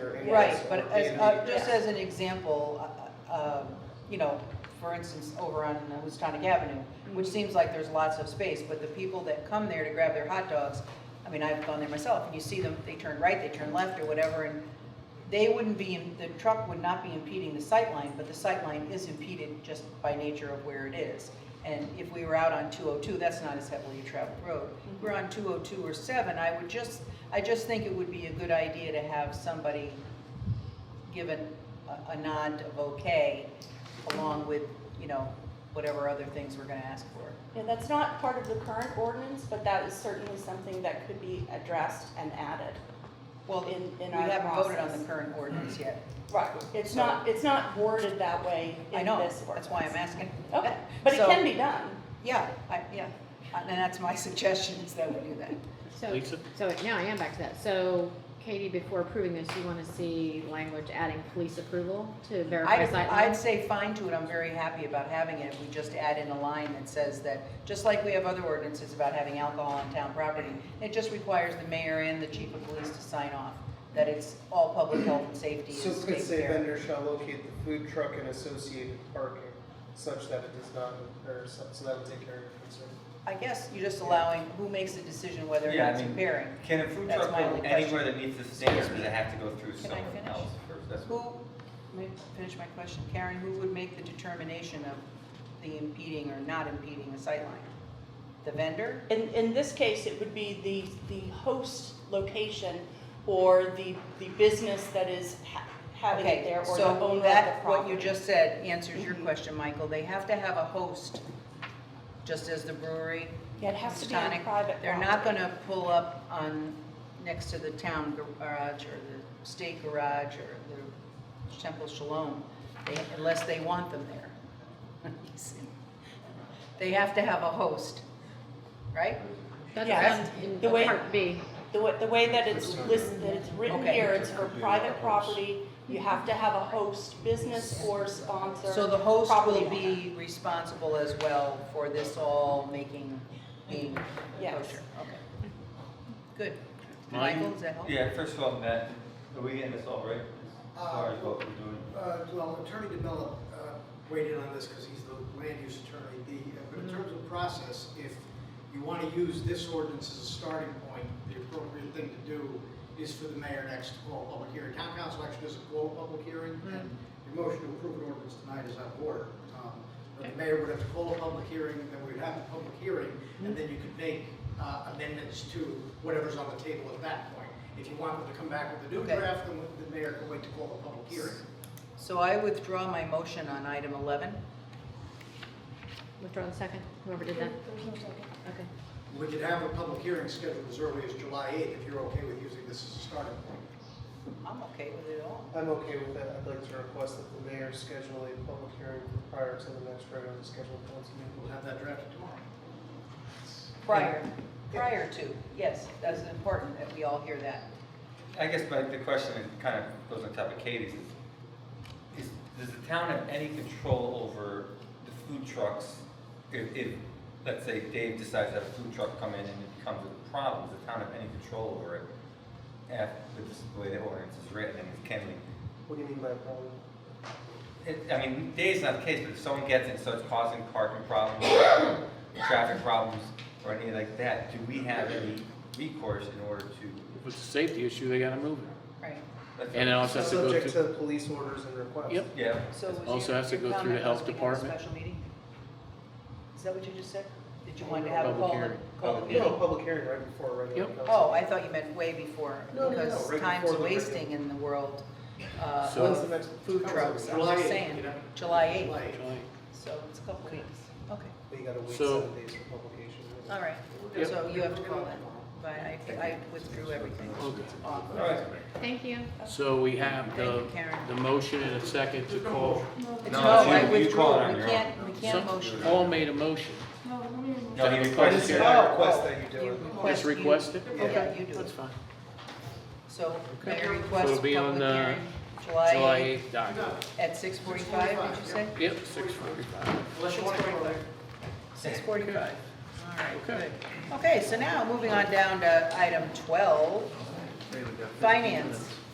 area. Right, so but they as, would uh, be just grass. as an example, uh, uh, you know, for instance, over on Houstonic Avenue, which seems like there's lots of space, but the people that come there to grab their hot dogs, I mean, I've gone there myself, and you see them, they turn right, they turn left or whatever, and they wouldn't be, in- the truck would not be impeding the sight line, but the sight line is impeded just by nature of where it is. And if we were out on 202, that's not as heavily traveled road. If We're on 202 or 7, I would just, I just think it would be a good idea to have somebody given a, a nod of okay, along with, you know, whatever other things we're gonna ask for. Yeah, that's not part of the current ordinance, but that is certainly something that could be addressed and added. Well, In- we in our haven't voted on process. the current ordinance yet. Right. It's not, it's not worded that way I in know, this ordinance. that's why I'm asking. Okay, but it So, can be done. Yeah, I, yeah, and that's my suggestion, is that we do that. So, Lisa? so now I am back to that. So Katie, before approving this, you want to see language adding police approval to verify I'd, sight I'd lines? say fine to it, I'm very happy about having it, we just add in a line that says that, just like we have other ordinances about having alcohol on town property, it just requires the mayor and the chief of police to sign off, that it's all public health and safety So is it could taken say care of. vendor shall locate the food truck and associated parking such that it does not, or so so that would take care of your concern. I guess you're just allowing, who makes the decision whether or Yeah, I not it's mean- impairing? Can a food That's truck my go only anywhere that meets the standards, or does it have to go through Can I someone finish? else first? That's Who, let me finish my question, Karen, who would make the determination of the impeding or not impeding a sightline? The vendor? In, in this case, it would be the, the host location or the, the business that is ha- having it there or the owner Okay, so of the that, what property. you just said answers your Mhm. question, Michael, they have to have a host, just as the brewery. Yeah, it has to be on Houstonic. private They're not property. gonna pull up on, next to the town garage or the state garage or the Temple Shalom, they- unless they want them there. They have to have a host, right? Yes. That's on, The in way- part B. The way, the way that it's listed, that it's written Okay. here, it's for private property, you have to have a host, business or sponsor. So the host property will owner. be responsible as well for this all making, being Yes. kosher, okay. Good. Mine? Michael, does that help? Yeah, first of all, Matt, are we getting this all right? As far as what we're doing? Uh, Well, Attorney DeMello uh, weighed in on this because he's the land use attorney. The, uh, but in terms of process, if you want to use this ordinance as a starting point, the appropriate thing to do is for the mayor next to call a public hearing. Town council actually doesn't call a public hearing, and your motion to approve an ordinance tonight is out of order. Um, But the mayor would have to call a public hearing, then we'd have a public hearing, and then you could make uh, amendments to whatever's on the table at that point. If you want them to come back with a new Okay. draft, then the mayor can wait to call a public hearing. So I withdraw my motion on item 11. Withdraw the second, whoever did that. Okay. We could have a public hearing scheduled as early as July 8th, if you're okay with using this as a starting point. I'm okay with it all. I'm okay with that. I'd like to request that the mayor schedule a public hearing prior to the next regularly scheduled council meeting. We'll have that drafted tomorrow. Prior, prior to, yes, that's important that we all hear that. I guess my, the question is kind of goes on top of Katie's is, is, does the town have any control over the food trucks? If, if, let's say Dave decides to have a food truck come in and it becomes a problem, does the town have any control over it? Af with this- the way the ordinance is written and it can be, What do you mean by a problem? it, I mean, Dave's not the case, but if someone gets it, starts causing parking problems, traffic problems, or anything like that, do we have any recourse in order to? If it's a safety issue, they gotta move it. Right. that's- And it also has to go Subject to through, police orders and requests. Yep. Yeah. So was Also your- has to your go through the comment was health we have a department. Special meeting? Is that what you just said? Did you want to have a Public call? hearing. Oh, call Public Oh, the No, meeting? a public hearing right before a regular Yep. council. Oh, I thought you meant way before, No, no, no, because right time's before the wasting in the world. uh, So- When's of the next Food council trucks, meeting? I'm July just 8th, saying, you know? July 8th, July July. so it's a couple weeks. Okay, But you gotta wait So- seven days for publication. all right, Yep. so you have to call that, but I, I withdrew everything. Okay. Off. All right. Thank you. so we have the, Thank you, Karen. the motion and a second to call. It's- No, No, it's you- I you withdrew, call it on we your can't, we can't Some- motion. Paul made a motion. No, he I requested. just it. said I request that you do Oh. You it. request Just you- request it? yeah, Okay, you do That's it. fine. So Okay. mayor So requests it'll be on public the hearing, July July 8th document. at six forty-five, did you say? Yep, six forty-five. Unless you want to go there. Six forty-five. All right, Okay. good. Okay, so now moving on down to item twelve, finance.